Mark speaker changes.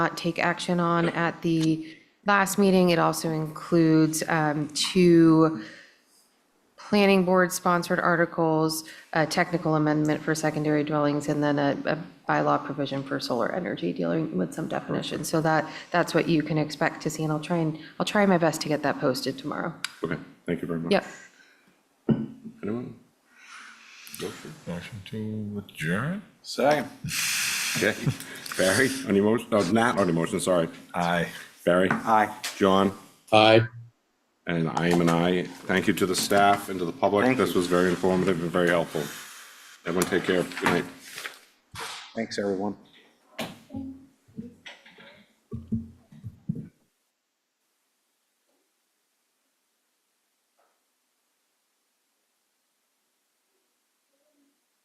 Speaker 1: not take action on at the last meeting. It also includes um, two planning board sponsored articles, a technical amendment for secondary dwellings, and then a a bylaw provision for solar energy dealing with some definitions. So that, that's what you can expect to see, and I'll try and, I'll try my best to get that posted tomorrow.
Speaker 2: Okay, thank you very much.
Speaker 1: Yep.
Speaker 2: Anyone?
Speaker 3: Motion to adjourn?
Speaker 4: Second.
Speaker 2: Okay. Barry, on your motion, no, not on your motion, sorry.
Speaker 3: Aye.
Speaker 2: Barry?
Speaker 4: Aye.
Speaker 2: John?
Speaker 5: Aye.
Speaker 2: And I am an aye. Thank you to the staff and to the public.
Speaker 4: Thank you.
Speaker 2: This was very informative and very helpful. Everyone take care. Good night.
Speaker 4: Thanks, everyone.